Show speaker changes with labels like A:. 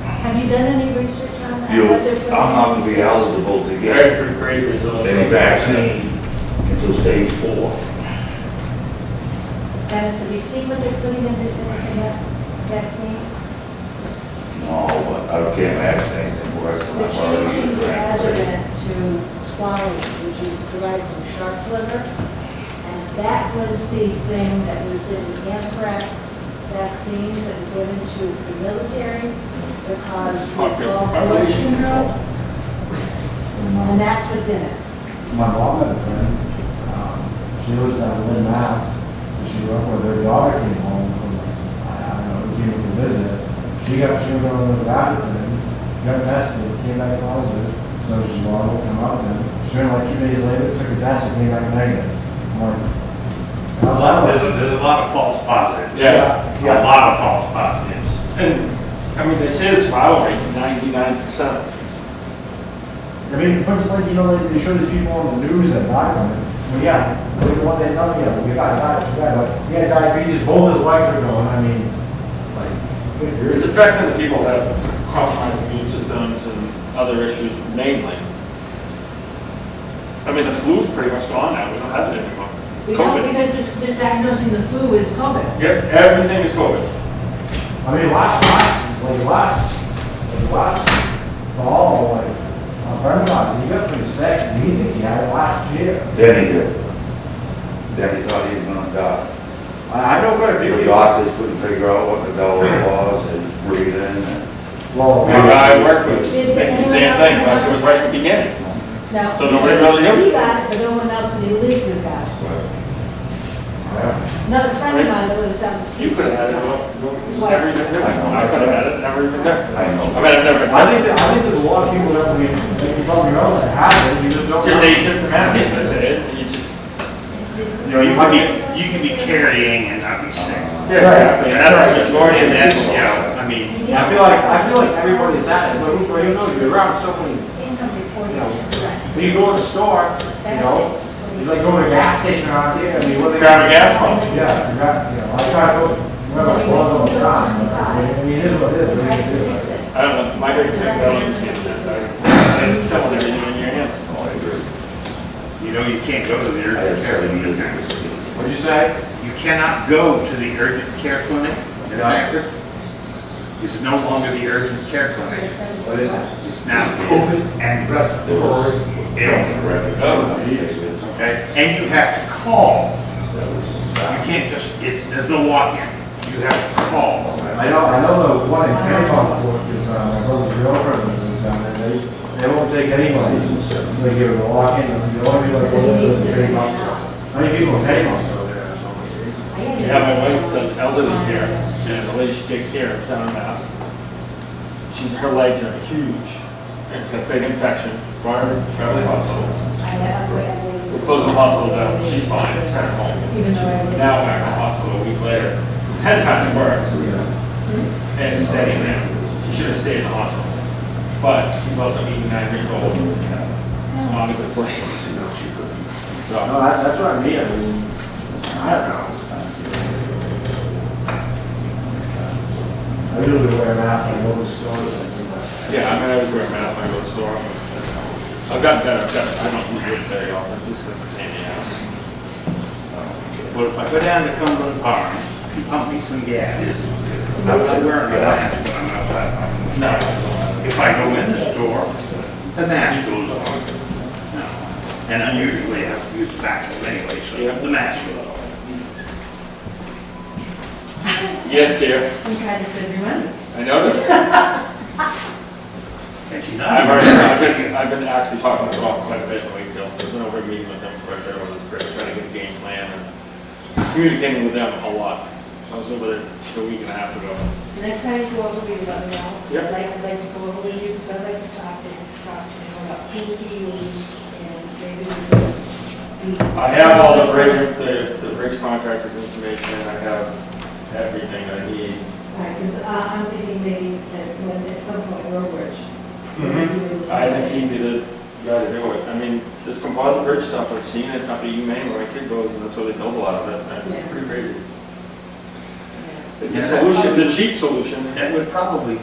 A: done any research on that?
B: You'll,
A: What their
B: I'm not gonna be
A: prognosis is?
B: eligible to get
C: Bradford Creek is on.
B: any vaccine until stage four.
A: Has, have you seen what they're putting in this, in that vaccine?
B: No, but I can't imagine anything worse than
D: They're
B: I've already
D: changing
B: been
D: the
B: granted.
D: adjuvant to swallow, which is derived from shark's liver. And that was the thing that was in the anthrax vaccines that were given to the military because
C: Fuck, it's
D: of war
C: population
D: syndrome.
E: My
D: And that's what's in it.
E: my mom had a friend, um, she was down in Lynn, Mass, and she went with her daughter came home from, I I don't know, came to visit. She got, she went over to Vatican, got tested, came back positive, so she wanted to come up then. She went like two days later, took a test, and came back negative. I'm like, how's that work?
F: There's a, there's a lot of false positives.
C: Yeah.
F: A lot of false positives.
C: And, I mean, they say the survival rate's ninety-nine percent.
E: I mean, but it's like, you know, they, they show these people on the news that die from it. Well, yeah, they the one they tell you, you got diabetes, you got, you got diabetes, both his legs are going, I mean, like, good
C: It's
E: grief.
C: affecting the people that have compromised immune systems and other issues mainly. I mean, the flu's pretty much gone now, we don't have it anymore.
D: We know
C: COVID.
D: because they're- they're diagnosing the flu as COVID.
C: Yep, everything is COVID.
E: I mean, last, last, like, last, like, last fall, like, my friend got, he got pretty sick, and he thinks he had it last year.
B: Then he did. Then he thought he was gonna die.
E: I, I know quite a few
B: The
E: people.
B: doctors couldn't figure out what the devil it was and breathing and.
E: Well,
C: The guy I worked with,
D: Did
C: the
D: anyone
C: same
D: else
C: thing, like, it
D: realize
C: was right
D: that?
C: at the beginning.
D: Now,
C: So
D: he
C: nobody
D: said
C: really knew?
D: He got it, but no one else in the elite who got it. Another friend of mine that lives down the street.
C: You could have had it, well, never even knew. I could have had it, never even knew. I
B: I know.
C: mean, I've never.
E: I think, that- I think there's a lot of people that we, that you probably know that have it, you just don't.
C: Just
E: know.
C: asymptomatic, that's it. You just-
F: You know, you can be, you can be carrying and not be sick.
C: Yeah,
F: And
C: that's the majority of the
F: that,
C: actual.
F: you know, I mean,
E: I feel like, I feel like everybody's at it, but who, but you know, you're around so many,
D: Income reporting, correct.
E: when you go to the store, you know, you like go to a gas station around here, I mean, what they.
C: Grab a gas pump.
E: Yeah, exactly, you know, I try to go, remember, I love all the time, but I mean, it is what it is, what do you do?
C: I don't know, my thirty-six, I don't use skin test, I, I just tell them everything in your hands.
B: No, I agree.
F: you know, you can't go to the
B: I
F: urgent
B: have
F: care
B: seven
F: clinic.
B: years.
F: now.
E: What'd you say?
F: You cannot go to the urgent care clinic, the doctor. It's no longer the urgent care clinic.
E: What is it?
F: It's now COVID and respiratory
B: They
F: illness,
C: Oh,
B: don't recognize it.
F: okay? And you have to call. You can't just, it's, there's no walk-in. You have to call.
E: I know, I know the one in Kennebunkport, because, uh, my brother's girlfriend was down there, they, they won't take anybody, they give it a walk-in, and the only people that go there is Kennebunkport. How many people in Kennebunkport go there? It's almost-
C: Yeah, my wife does elderly care, and the lady she takes care of down in Mass. She's, her legs are huge, and a big infection, brought her to the hospital.
D: I have, I have.
C: We closed the hospital down, she's fine, it's her home.
D: Even though I.
C: Now back in the hospital a week later, ten times worse.
D: Hmm?
C: And staying there, she should have stayed in the hospital. But she's also eighty-nine years old, you know,
D: Hmm.
C: it's not a good place. So.
E: No, that, that's what I mean, I mean, I don't know. I usually wear a mask when I go to stores, like,
C: Yeah, I mean, I was wearing a mask when I go to the store. I've gotten better, I've gotten, I don't use this very often, this is a pain in the ass.
F: Well, if I go down to Cumberland Farm, you pump me some gas. I'm not wearing a mask when I'm outside.
C: No.
F: If I go in the store, the mask goes on. No. And I usually have to use the bathroom anyway,
C: Yeah.
F: so the mask goes on.
C: Yes, dear,
D: I'm trying to save your money.
C: I noticed.
F: And she's not.
C: I've already, I've been, I've been actually talking to Rob quite a bit in Wakefield, I've been over a meeting with them quite a bit over this break, trying to get a game plan and communicating with them a lot. I was over there a week and a half ago.
D: The next time you go over, we let me know.
C: Yep.
D: I'd like, I'd like to go over with you, because I'd like to talk to, talk to you about pinky and maybe we could.
C: I have all the bridge, the, the bridge contractors information, I have everything I need.
D: Right, because I'm thinking maybe that when, at some point, Roebridge.
C: Mm-hmm. I think he'd be the guy to do it. I mean, this composite bridge stuff, I've seen it up at UMaine where my kid goes, and that's where they build a lot of it, and
D: Yeah.
C: it's pretty crazy. It's
F: Yeah.
C: a solution, it's a cheap solution.
F: That would probably